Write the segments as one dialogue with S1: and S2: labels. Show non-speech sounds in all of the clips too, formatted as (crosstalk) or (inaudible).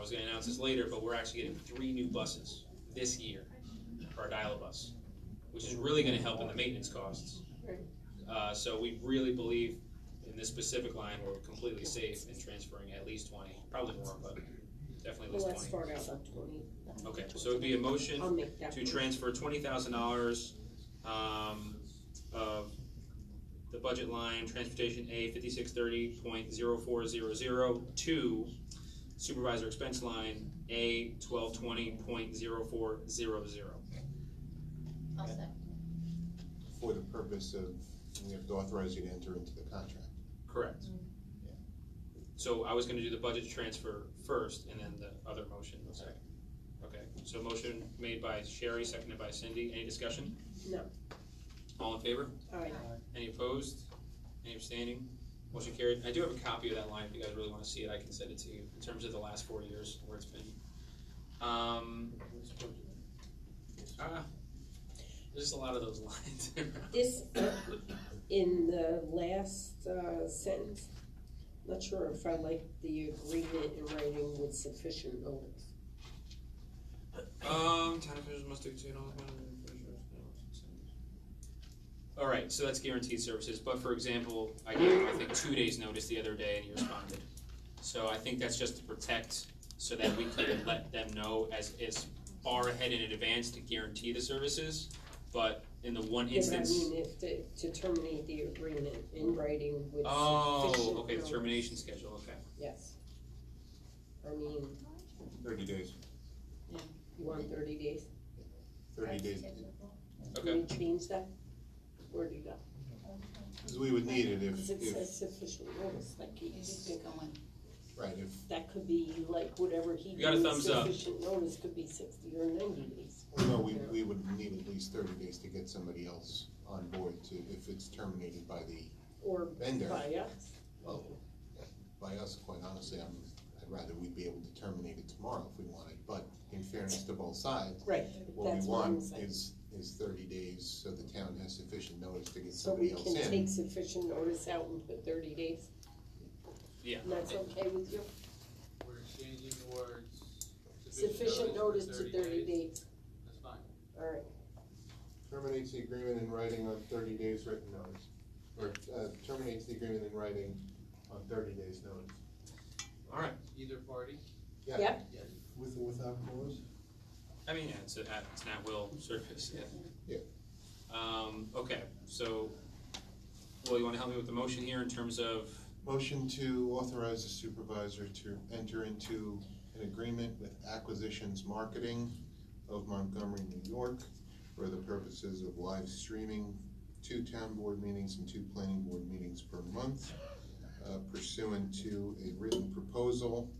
S1: was gonna announce this later, but we're actually getting three new buses this year for our dial-a-bus, which is really gonna help in the maintenance costs.
S2: Right.
S1: Uh, so we really believe in this specific line, we're completely safe in transferring at least twenty, probably more, but definitely
S2: Well,
S1: at
S2: let's
S1: least twenty.
S2: start out with twenty.
S1: Okay, so it'd be a motion
S2: I'll make that.
S1: to transfer twenty thousand dollars, um, of the budget line, transportation A fifty-six thirty point zero four zero zero to supervisor expense line A twelve twenty point zero four zero zero.
S3: I'll
S4: Okay.
S3: say.
S4: for the purpose of, we have to authorize you to enter into the contract.
S1: Correct.
S4: Yeah.
S1: So I was gonna do the budget transfer first and then the other motion was second. Okay, so motion made by Sherry, seconded by Cindy. Any discussion?
S2: No.
S1: All in favor?
S2: Aye.
S1: Any opposed? Any abstaining? Motion carried. I do have a copy of that line, if you guys really wanna see it, I can send it to you, in terms of the last four years, where it's been. Um, ah, there's just a lot of those (laughs) lines.
S2: This, in the last uh, sentence, not sure if I like the agreement in writing with sufficient notice.
S1: Um, town officials must obtain all Alright, so that's guaranteed services, but for example, I gave him, I think, two days' notice the other day and he responded. So I think that's just to protect, so that we could let them know as, as far ahead in advance to guarantee the services. But in the one
S2: Yeah, but I
S1: instance,
S2: mean, if, to, to terminate the agreement in writing with sufficient
S1: oh, okay, the
S2: notice.
S1: termination schedule, okay.
S2: Yes. I mean,
S4: Thirty days,
S2: you want thirty days?
S4: thirty days,
S1: Okay.
S2: Can we change that? Where do you go?
S4: 'Cause we would need it if,
S2: Because it
S4: if,
S2: says sufficient notice, like you
S3: He's
S2: could-
S3: going.
S4: right, if,
S2: that could be like whatever he
S1: You got a
S2: deems
S1: thumbs up.
S2: sufficient notice, could be sixty or ninety days.
S4: no, we, we would need at least thirty days to get somebody else on board to, if it's terminated by the
S2: Or
S4: vendor.
S2: by us.
S4: Well, by us, quite honestly, I'm, I'd rather we'd be able to terminate it tomorrow if we wanted, but in fairness to both sides,
S2: Right,
S4: what
S2: that's
S4: we
S2: what I'm
S4: want
S2: saying.
S4: is, is thirty days so the town has sufficient notice to get
S2: So we
S4: somebody else in.
S2: can take sufficient notice out and put thirty days?
S1: Yeah.
S2: And that's okay with you?
S5: We're changing the words.
S2: Sufficient notice to thirty days,
S5: That's fine.
S2: alright.
S4: Terminates the agreement in writing on thirty days written notice, or, uh, terminates the agreement in writing on thirty days notice.
S2: Mm-hmm.
S1: Alright,
S5: Either party?
S4: Yeah.
S2: Yep.
S5: Yes.
S6: With or without cause?
S1: I mean, yeah, it's, a, it's an at-will service, yeah.
S4: Yeah.
S1: Um, okay, so, well, you wanna help me with the motion here in terms of,
S4: Motion to authorize the supervisor to enter into an agreement with Acquisitions Marketing of Montgomery, New York, for the purposes of live streaming two town board meetings and two planning board meetings per month uh, pursuant to a written proposal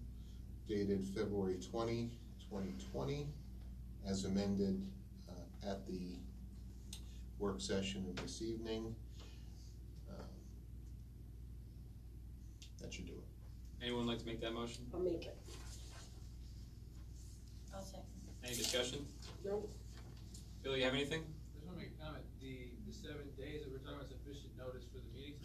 S4: dated February 20, 2020, as amended uh, at the work session of this evening. Um, That should do it.
S1: anyone like to make that motion?
S2: I'll make it.
S3: I'll say.
S1: Any discussion?
S2: Nope.
S1: Bill, you have anything?
S5: I just wanna make a comment, the, the seven days that we're talking about sufficient notice for the meetings,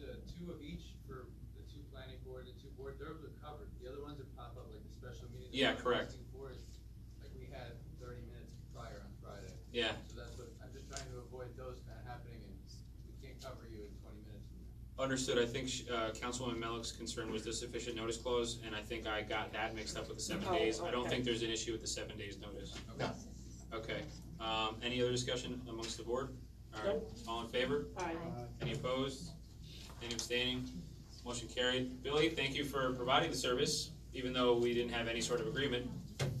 S5: the two of each for the two planning board and two board, those are covered. The other ones that pop up, like the special meeting.
S1: Yeah,
S5: that we're
S1: correct.
S5: requesting for is, Like we had thirty minutes prior on Friday.
S1: Yeah,
S5: So that's what, I'm just trying to avoid those kind of happening and we can't cover you in twenty minutes.
S1: understood. I think, sh- uh, Councilwoman Melick's concern was the sufficient notice clause, and I think I got that mixed up with the seven
S2: Oh,
S1: days. I don't think
S2: okay.
S1: there's an issue with the seven days notice.
S4: No.
S1: Okay, um, any other discussion amongst the board? Alright, all in favor?
S2: Aye.
S1: Any opposed? Any abstaining? Motion carried. Billy, thank you for providing the service, even though we didn't have any sort of agreement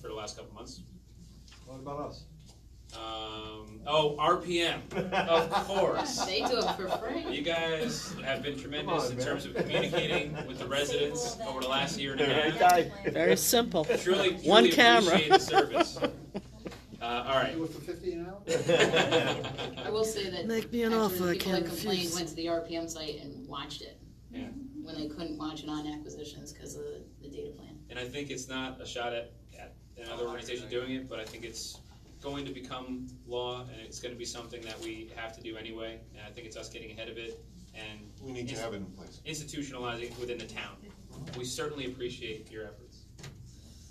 S1: for the last couple months.
S6: What about us?
S1: Um, oh, RPM, of course.
S3: They do it for free.
S1: You guys have been tremendous
S6: Come on,
S1: in
S6: man.
S1: terms of communicating with the residents over the last year and a
S6: Very
S1: half.
S7: Very simple.
S1: Truly,
S7: One
S1: truly
S7: camera.
S1: appreciate the service. Uh, all right. (laughs)
S7: (laughs)
S6: Do it for fifty an hour?
S3: I will say that.
S7: Make me an
S3: actually,
S7: offer, I
S3: People that
S7: can't
S3: complained
S7: refuse.
S3: went to the RPM site and watched it.
S1: Yeah.
S3: When they couldn't watch it on acquisitions because of the, the data plan.
S1: And I think it's not a shot at, at another organization doing it, but I think it's going to become law and it's gonna be something that we have to do anyway. And I think it's us getting ahead of it and
S4: We need to have it in place.
S1: institutionalizing it within the town. We certainly appreciate your efforts.